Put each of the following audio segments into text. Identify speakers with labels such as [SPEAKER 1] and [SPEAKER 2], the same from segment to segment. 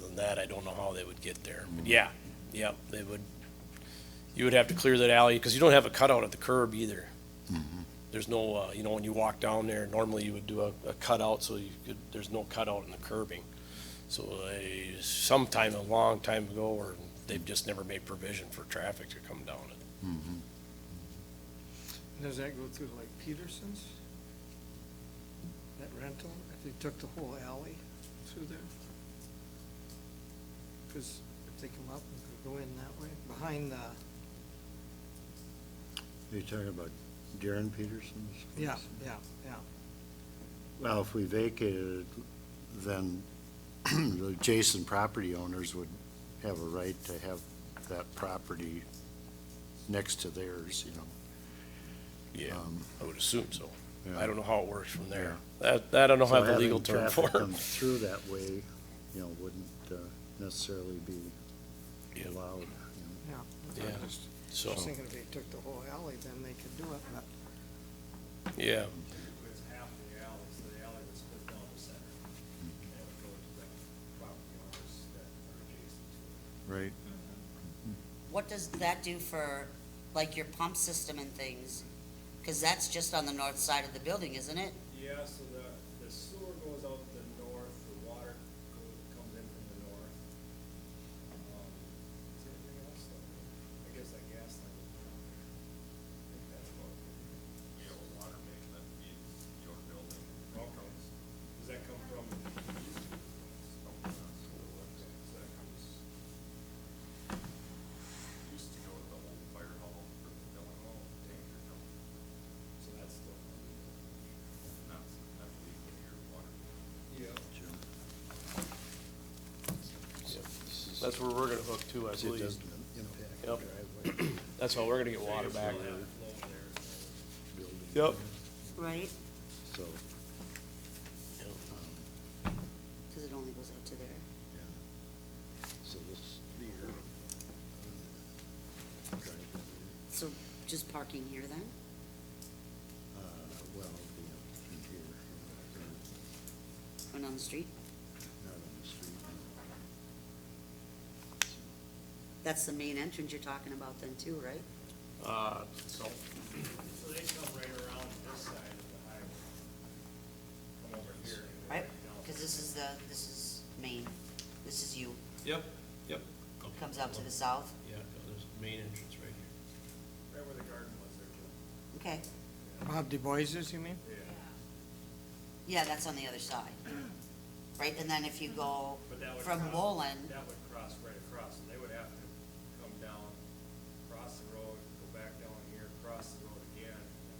[SPEAKER 1] than that, I don't know how they would get there. But yeah, yeah, they would, you would have to clear that alley, because you don't have a cutout at the curb either.
[SPEAKER 2] Mm-hmm.
[SPEAKER 1] There's no, uh, you know, when you walk down there, normally you would do a, a cutout, so you could, there's no cutout in the curbing. So they, sometime a long time ago, or they've just never made provision for traffic to come down it.
[SPEAKER 3] Does that go through like Peterson's? That rental, if they took the whole alley through there? Because if they come up and go in that way, behind the,
[SPEAKER 2] Are you talking about Darren Peterson's?
[SPEAKER 3] yeah,
[SPEAKER 2] place?
[SPEAKER 3] yeah, yeah.
[SPEAKER 2] Well, if we vacated it, then the adjacent property owners would have a right to have that property next to theirs, you know.
[SPEAKER 1] Yeah,
[SPEAKER 2] Um,
[SPEAKER 1] I would assume so. I
[SPEAKER 2] yeah.
[SPEAKER 1] don't know how it works from there. That, that I don't know
[SPEAKER 2] So
[SPEAKER 1] have a
[SPEAKER 2] having
[SPEAKER 1] legal term for.
[SPEAKER 2] traffic come Through that way, you know, wouldn't uh, necessarily be
[SPEAKER 1] Yeah.
[SPEAKER 2] allowed. you know.
[SPEAKER 3] Yeah.
[SPEAKER 1] Yeah,
[SPEAKER 3] I was
[SPEAKER 1] So,
[SPEAKER 3] Just thinking if they took the whole alley, then they could do it, but
[SPEAKER 1] yeah,
[SPEAKER 4] It was half the alley, so the alley was split down the center. And it would go to the property owners that are adjacent to it.
[SPEAKER 2] Right.
[SPEAKER 5] What does that do for, like, your pump system and things? Because that's just on the north side of the building, isn't it?
[SPEAKER 4] Yeah, so the, the sewer goes out the north, the water goes, comes in from the north. Um, Is there anything else? that we- I guess that gas line. is down there. I think that's about it. You have a water main that feeds your building. Okay. Does that come from? So that comes. Used to go to the old fire hall for the building hall, tanker company. So that's still. And that's, I believe, where your water. Yeah.
[SPEAKER 1] that's where we're gonna hook to, I
[SPEAKER 2] It doesn't
[SPEAKER 1] believe.
[SPEAKER 2] impact the
[SPEAKER 1] Yep.
[SPEAKER 2] driveway
[SPEAKER 1] That's how we're gonna get water back.
[SPEAKER 2] building.
[SPEAKER 1] Yep.
[SPEAKER 5] Right.
[SPEAKER 2] So, um,
[SPEAKER 5] Because it only goes out to there.
[SPEAKER 2] yeah. So this, the, uh, driveway.
[SPEAKER 5] So just parking here then?
[SPEAKER 2] Uh, well, you know, in here, uh,
[SPEAKER 5] And on the street?
[SPEAKER 2] not on the street.
[SPEAKER 5] That's the main entrance you're talking about then too, right?
[SPEAKER 1] Uh, so,
[SPEAKER 4] So they come right around this side of the highway. Come over here. and go
[SPEAKER 5] Right?
[SPEAKER 4] down.
[SPEAKER 5] Because this is the, this is main, this is you,
[SPEAKER 1] yep, yep.
[SPEAKER 5] comes out to the south,
[SPEAKER 1] Yeah, there's the main entrance right here.
[SPEAKER 4] Right where the garden was there. Jim.
[SPEAKER 5] okay?
[SPEAKER 3] Bob DuBois's, you mean?
[SPEAKER 5] Yeah, that's on the other side, right? And then if you go
[SPEAKER 4] But that would
[SPEAKER 5] from
[SPEAKER 4] cross-
[SPEAKER 5] Wolin,
[SPEAKER 4] That would cross right across, and they would have to come down, cross the road, go back down here, cross the road again, and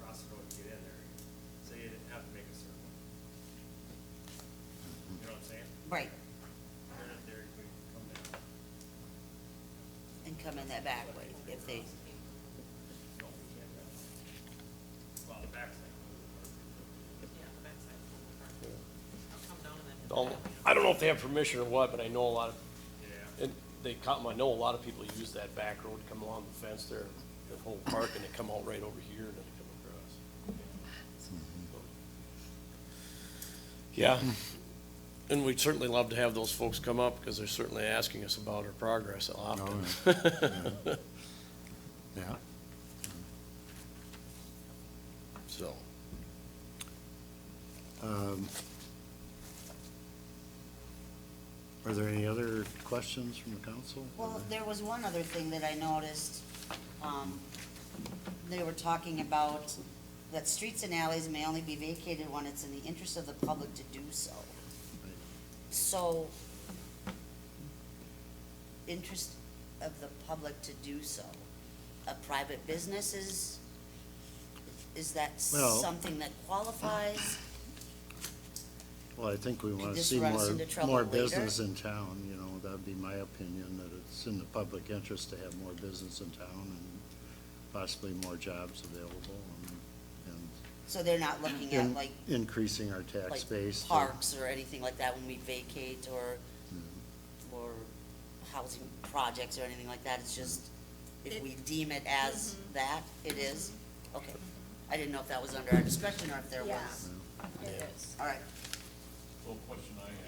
[SPEAKER 4] cross the road to get in there. So you didn't have to make a circle. You know what I'm saying?
[SPEAKER 5] right,
[SPEAKER 4] Turn it there, we come down.
[SPEAKER 5] and come in that back way if they,
[SPEAKER 4] No, we can't. uh, Well, the backside.
[SPEAKER 1] Um, I don't know if they have permission or what, but I know a lot of,
[SPEAKER 4] Yeah.
[SPEAKER 1] and they come, I know a lot of people use that back road to come along the fence there, the whole park, and they come out right over here and then they come across. Yeah, and we'd certainly love to have those folks come up, because they're certainly asking us about our progress often.
[SPEAKER 2] Yeah.
[SPEAKER 1] So,
[SPEAKER 2] um, Are there any other questions from the council?
[SPEAKER 5] Well, there was one other thing that I noticed. Um, They were talking about that streets and alleys may only be vacated when it's in the interest of the public to do so. So, interest of the public to do so. A private business is, is that
[SPEAKER 2] Well-
[SPEAKER 5] something that qualifies?
[SPEAKER 2] Well, I think we want to
[SPEAKER 5] this
[SPEAKER 2] see
[SPEAKER 5] run us
[SPEAKER 2] more,
[SPEAKER 5] into trouble
[SPEAKER 2] more
[SPEAKER 5] later?
[SPEAKER 2] business in town, you know, that'd be my opinion, that it's in the public interest to have more business in town and possibly more jobs available and,
[SPEAKER 5] So they're not looking at
[SPEAKER 2] and
[SPEAKER 5] like,
[SPEAKER 2] in- increasing our tax base.
[SPEAKER 5] like
[SPEAKER 2] to-
[SPEAKER 5] parks or anything like that when we vacate or
[SPEAKER 2] Mm.
[SPEAKER 5] or housing projects or anything like that, it's just, if we deem it as that, it is? Okay, I didn't know if that was under our discussion or if there
[SPEAKER 6] Yeah.
[SPEAKER 5] was,
[SPEAKER 6] It is.
[SPEAKER 5] all right,
[SPEAKER 7] Well, question I